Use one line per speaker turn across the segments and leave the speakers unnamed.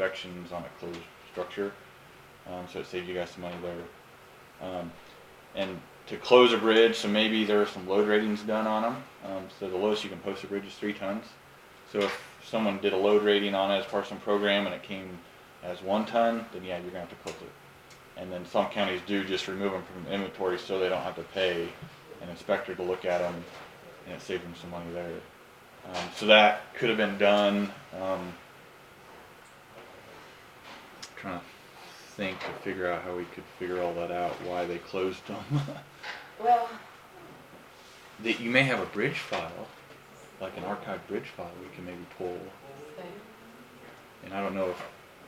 inspections on a closed structure. Um, so it saved you guys some money later. Um, and to close a bridge, so maybe there are some load ratings done on them. Um, so the lowest you can post a bridge is three tons. So if someone did a load rating on it as part of some program and it came as one ton, then yeah, you're gonna have to close it. And then some counties do just remove them from inventory so they don't have to pay an inspector to look at them, and it saves them some money there. Um, so that could have been done, um, trying to think to figure out how we could figure all that out, why they closed them.
Well,
that you may have a bridge file, like an archived bridge file we can maybe pull, and I don't know if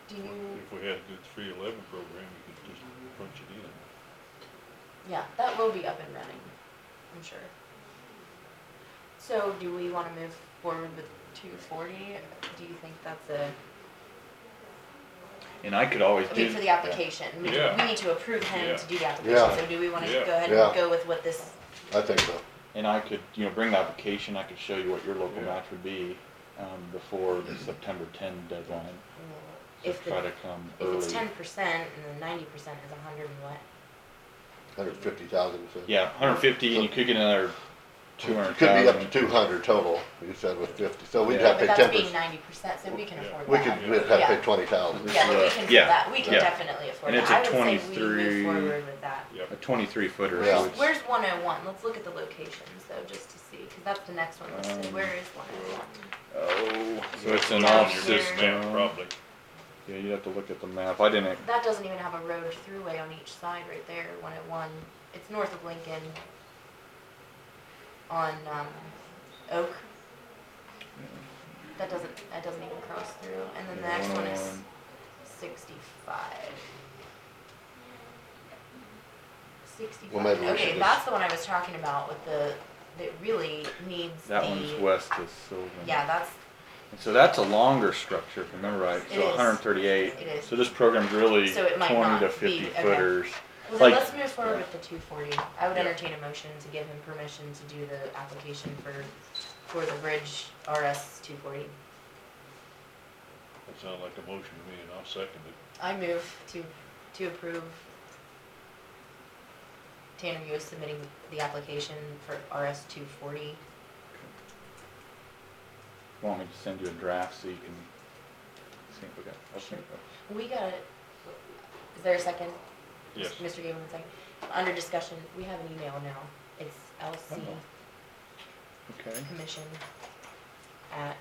do you,
If we had a good three eleven program, you could just punch it in.
yeah, that will be up and running, I'm sure. So do we wanna move forward with two forty? Do you think that's a,
And I could always
I
do.
mean, for the application? we-
Yeah.
We need to approve him
Yeah.
to do the application,
Yeah.
so do we wanna go
Yeah.
ahead
Yeah.
and go with what this,
I think so.
And I could, you know, bring the application, I could show you what your local
Yeah.
match would be, um, before the September ten deadline. So
if
try
the,
to come
if
early.
it's ten percent and then ninety percent is a hundred and what?
Hundred fifty thousand, you said.
Yeah, hundred fifty, and you could get another two hundred
Could be up
thousand.
to two hundred total, you said with fifty, so we'd
Yeah.
have to
But
pay
that's
ten
being
percent.
ninety percent, so we can
Yeah.
afford that.
We could, we'd have to
Yeah.
pay twenty thousand.
Yeah, but we can do
Yeah.
that, we can
Yeah.
definitely afford
And
that.
it's a
I would say we
23
move forward with that.
A twenty-three footer.
Yeah.
so it's-
Where's one oh one? Let's look at the locations though, just to see, cause that's the next one listed.
Um,
Where is one oh one?
Oh, so it's an
Down
off
here.
system.
Map, probably.
Yeah, you'd have to look at the map, I didn't,
That doesn't even have a road or throughway on each side right there, one oh one. It's north of Lincoln. On, um, Oak. That doesn't, that doesn't even cross through. And then the
Yeah,
next one
oh
is
101.
sixty-five.
Well, maybe
Sixty-five,
we should
okay,
just-
that's the one I was talking about with the, that really needs the.
that one's west of Sylvan.
Yeah, that's,
And so that's a longer structure, if I remember right,
It
so
is.
hundred and thirty-eight.
It is.
So this program's really
So it might not
twenty to
be-
fifty
okay.
footers.
well, then
Like-
let's move forward with the two forty. I would
Yeah.
entertain a motion to give him permission to do the application for, for the bridge RS two forty.
That sounds like a motion to me, and I'll second it.
I move to, to approve. Tanner, you is submitting the application for RS two forty.
Want me to send you a draft so you can see if we got, I'll send you.
We got it. Is there a second?
Yes.
Mr. Gableman, second. Under discussion, we have an email now. It's LC
Uh-oh. Okay.
Commission at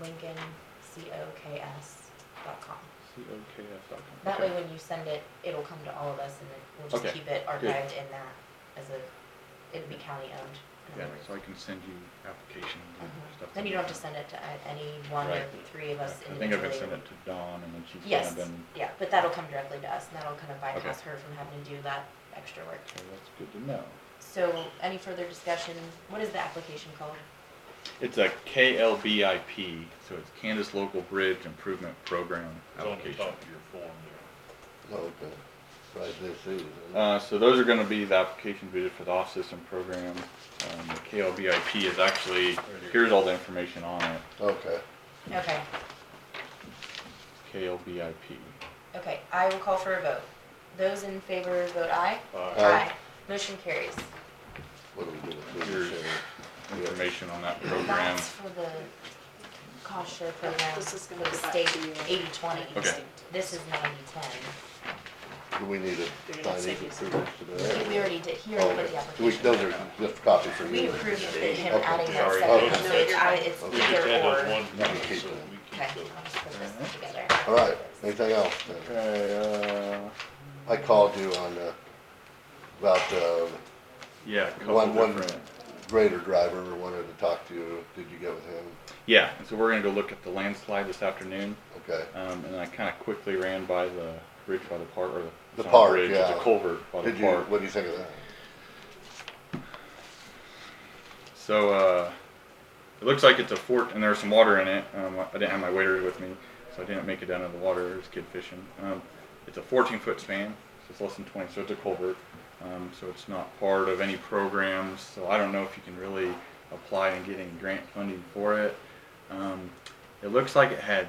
Lincoln, C O K S dot com.
COKF.com.
That way,
Okay.
when you send it, it'll come to all of us and then we'll just
Okay,
keep it
good.
archived in that as a, it'd be county owned. in
Yeah,
other words.
so I can send you application and
Mhm.
stuff.
Then you don't have to send it to uh, any one of
Right.
the three of us
I think I've
individually.
been sending it to Dawn and then she's
Yes,
kind of been,
yeah, but that'll come directly to us and that'll kind of
Okay.
bypass her from having to do that extra work.
so that's good to know.
So, any further discussion? What is the application called?
It's a KLBIP, so it's Kansas Local Bridge Improvement Program
It's on the
application.
top of your form there.
Okay, right, this is,
Uh, so those are gonna be the applications we did for the off-system program. Um, the KLBIP is actually,
here.
here's all the information on it,
okay.
Okay,
KLBIP.
okay, I will call for a vote. Those in favor vote aye?
Aye.
Aye.
Motion carries.
What do we do with this?
Here's Information on that program.
That's for the cost share program
This is
with
gonna
the
be back
state,
to you.
eighty twenty.
Okay.
This is ninety ten.
Do we need to
They're gonna
sign these
send you some.
approvals today?
We already did, he
Oh,
already put
okay.
the
We-
application.
Those are just copies for you.
We approved it, him
Okay.
adding that
Sorry.
second,
Okay.
so it's, I- it's
Okay.
We just
either
had those
or.
one,
Yeah, we
so we
keep
keep
those.
Okay, I'll
those.
just put this together.
All right, anything else? then?
Okay, uh,
I called you on, uh, about, uh,
yeah, a couple
one, one
different.
grader driver wanted to talk to you. Did you get with him?
Yeah, and so we're gonna go look at the landslide this afternoon.
Okay,
Um, and I kind of quickly ran by the bridge by the park, or the,
The
it's not a
park,
bridge, it's a
yeah.
culvert by the
did you,
park.
what do you think of that?
So uh, it looks like it's a fort, and there's some water in it. Um, I didn't have my waders with me, so I didn't make it down to the water. It was kid fishing. Um, it's a 14 foot span, so it's less than 20, so it's a culvert. Um, so it's not part of any programs. So I don't know if you can really apply and get any grant funding for it. Um, it looks like it had